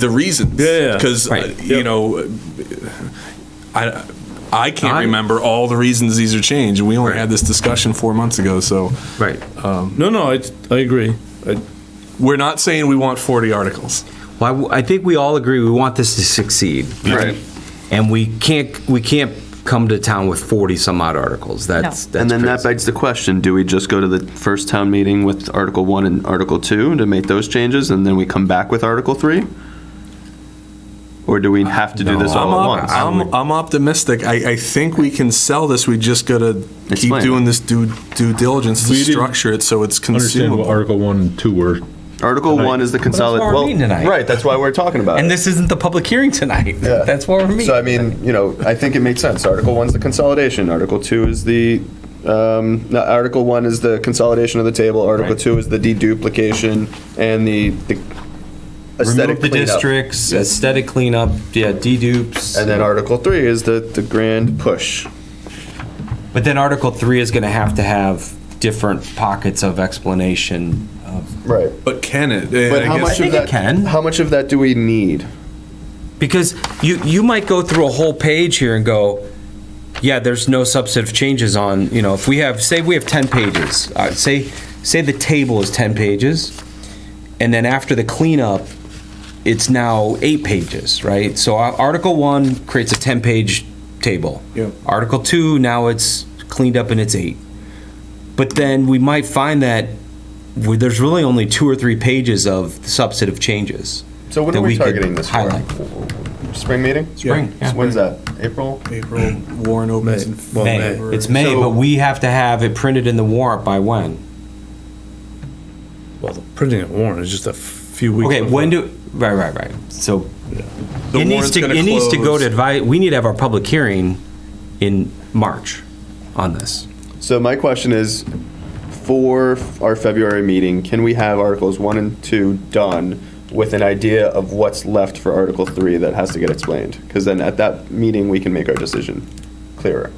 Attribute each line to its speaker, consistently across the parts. Speaker 1: the reasons.
Speaker 2: Yeah, yeah.
Speaker 1: Because
Speaker 3: Right.
Speaker 1: you know, I I can't
Speaker 3: I'm-
Speaker 1: remember all the reasons these are changed. We only had this discussion four months ago, so
Speaker 3: Right.
Speaker 2: No, no, I, I agree. I,
Speaker 1: we're not saying we want forty articles.
Speaker 3: Well, I w- I think we all agree we want this to succeed.
Speaker 4: Right.
Speaker 3: And we can't, we can't come to town with 40 some odd articles. That's, that's
Speaker 4: And then that
Speaker 3: crazy.
Speaker 4: begs the question, do we just go to the first town meeting with Article 1 and Article 2 to make those changes, and then we come back with Article 3? Or do we have to do this
Speaker 1: I'm,
Speaker 4: all at
Speaker 1: op-
Speaker 4: once?
Speaker 1: I'm, I'm optimistic. I, I think we can sell this. We just gotta keep
Speaker 4: Explain it.
Speaker 1: doing this due due diligence to
Speaker 5: We didn't
Speaker 1: structure it so it's
Speaker 5: Understand
Speaker 1: consumable.
Speaker 5: what Article 1 and 2 were.
Speaker 4: Article 1 is the consolid,
Speaker 3: we're
Speaker 4: well,
Speaker 3: meeting tonight.
Speaker 4: right, that's why we're talking about it.
Speaker 3: And this isn't the public hearing tonight.
Speaker 4: Yeah.
Speaker 3: That's where we're meeting.
Speaker 4: So I mean, you know, I think it makes sense. Article one's the consolidation. Article two is the, um, no, Article one is the consolidation of the table. Article
Speaker 3: Right.
Speaker 4: two is the deduplication and the, the aesthetic
Speaker 3: Remove the
Speaker 4: cleanup.
Speaker 3: districts, aesthetic cleanup, yeah, dedupes.
Speaker 4: And then Article three is the, the grand push.
Speaker 3: But then Article 3 is going to have to have different pockets of explanation. of-
Speaker 4: Right.
Speaker 1: But can it?
Speaker 4: But
Speaker 1: And I
Speaker 4: how
Speaker 1: guess-
Speaker 4: much of
Speaker 3: think it
Speaker 4: that,
Speaker 3: can.
Speaker 4: how much of that do we need?
Speaker 3: Because you, you might go through a whole page here and go, yeah, there's no substantive changes on, you know, if we have, say we have 10 pages, uh, say, say the table is 10 pages, and then after the cleanup, it's now eight pages, right? So Ar- Article 1 creates a 10-page table.
Speaker 1: Yeah.
Speaker 3: Article 2, now it's cleaned up and it's eight. But then we might find that we- there's really only two or three pages of substantive changes.
Speaker 4: So when
Speaker 3: that
Speaker 4: are we
Speaker 3: could
Speaker 4: targeting this for?
Speaker 3: highlight.
Speaker 4: Spring meeting?
Speaker 3: Spring, yeah.
Speaker 4: When's that? April?
Speaker 1: April Warren opens in
Speaker 2: Well, May.
Speaker 3: May.
Speaker 1: February.
Speaker 3: It's May,
Speaker 1: So-
Speaker 3: but we have to have it printed in the warrant by when?
Speaker 2: well, the printing of warrant is just a few weeks.
Speaker 3: Okay, when do, right, right, right. So
Speaker 1: The
Speaker 3: it needs
Speaker 1: warrant's
Speaker 3: to,
Speaker 1: gonna
Speaker 3: it needs to go
Speaker 1: close.
Speaker 3: to advise, we need to have our public hearing in March on this.
Speaker 4: So my question is, for our February meeting, can we have Articles 1 and 2 done with an idea of what's left for Article 3 that has to get explained? Because then at that meeting, we can make our decision clearer.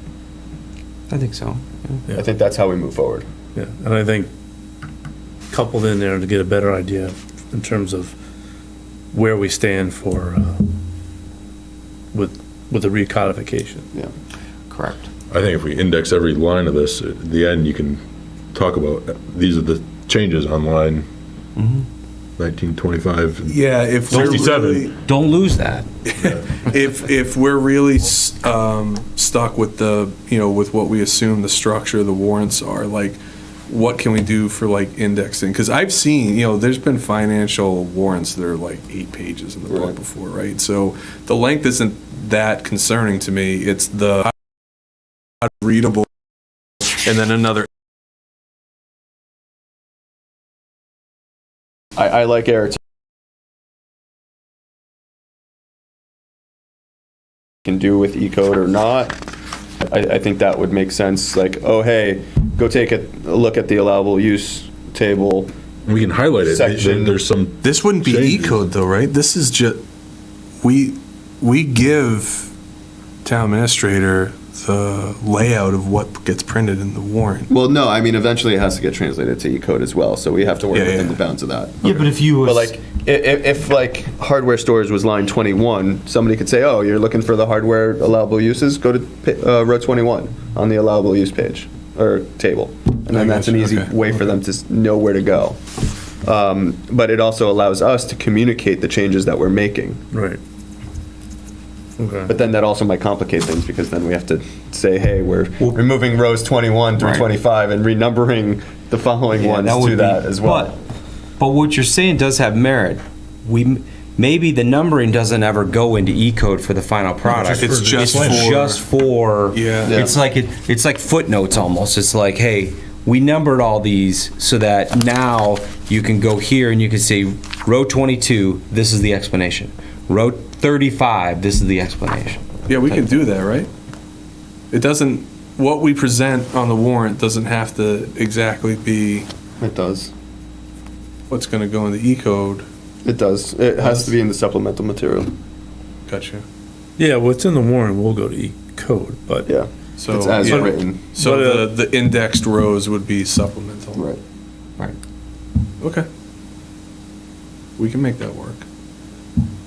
Speaker 3: I think so.
Speaker 4: I think that's how we move forward.
Speaker 2: Yeah, and I think coupled in there to get a better idea in terms of where we stand for, uh, with, with the recodification.
Speaker 3: Correct.
Speaker 5: I think if we index every line of this, at the end, you can talk about, uh, these are the changes on line 1925 and
Speaker 1: Yeah, if we're
Speaker 5: 67.
Speaker 1: really-
Speaker 3: Don't lose that.
Speaker 1: if if we're really um, stuck with the you know with what we assume the structure of the warrants are like what can we do for like indexing because i've seen you know there's been financial warrants that are like eight pages in the book
Speaker 4: Right.
Speaker 1: before right so the length isn't that concerning to me it's the readable and then another
Speaker 4: I, I like Eric's. Can do with E code or not. I, I think that would make sense, like, oh, hey, go take a a look at the allowable use table.
Speaker 5: We can highlight it. There-
Speaker 4: Section-
Speaker 5: There's some,
Speaker 1: this wouldn't be e
Speaker 5: Changes.
Speaker 1: code though right this is just we we give town administrator the layout of what gets printed in the warrant
Speaker 4: Well, no, I mean, eventually it has to get translated to E code as well, so we have to work
Speaker 1: Yeah,
Speaker 4: within
Speaker 1: yeah.
Speaker 4: the bounds of that.
Speaker 3: Yeah, but if you
Speaker 4: But like, i- i- if like hardware stores was line 21, somebody could say, oh, you're looking for the hardware allowable uses, go to pa- uh, row 21 on the allowable use page or table. And
Speaker 1: I
Speaker 4: then that's an
Speaker 1: gotcha,
Speaker 4: easy
Speaker 1: okay,
Speaker 4: way for them to s- know where to go. Um, But it also allows us to communicate the changes that we're making.
Speaker 2: Right. Okay.
Speaker 4: But then that also might complicate things because then we have to say, hey, we're removing rows 21 through
Speaker 3: Right.
Speaker 4: 25 and renumbering the following ones
Speaker 3: would
Speaker 4: to
Speaker 3: be-
Speaker 4: that as well.
Speaker 3: But, but what you're saying does have merit. We m- maybe the numbering doesn't ever go into E code for the final product.
Speaker 1: It's just
Speaker 3: it's
Speaker 1: for-
Speaker 3: just for
Speaker 1: Yeah.
Speaker 4: Yeah.
Speaker 3: It's like it, it's like footnotes almost. It's like hey, we numbered all these so that now you can go here and you can see row 22. This is the explanation. Row 35. This is the explanation.
Speaker 1: Yeah, we can do that, right? It doesn't, what we present on the warrant doesn't have to exactly be
Speaker 4: It does.
Speaker 1: what's gonna go in the E code.
Speaker 4: It does. It has to be in the supplemental material.
Speaker 1: Gotcha.
Speaker 2: Yeah, what's in the warrant will go to E code, but
Speaker 4: Yeah.
Speaker 1: So,
Speaker 4: it's as
Speaker 1: yeah.
Speaker 4: written.
Speaker 2: But,
Speaker 1: So
Speaker 2: uh,
Speaker 1: the, the indexed rows would be supplemental.
Speaker 4: Right.
Speaker 1: Okay. We can make that work.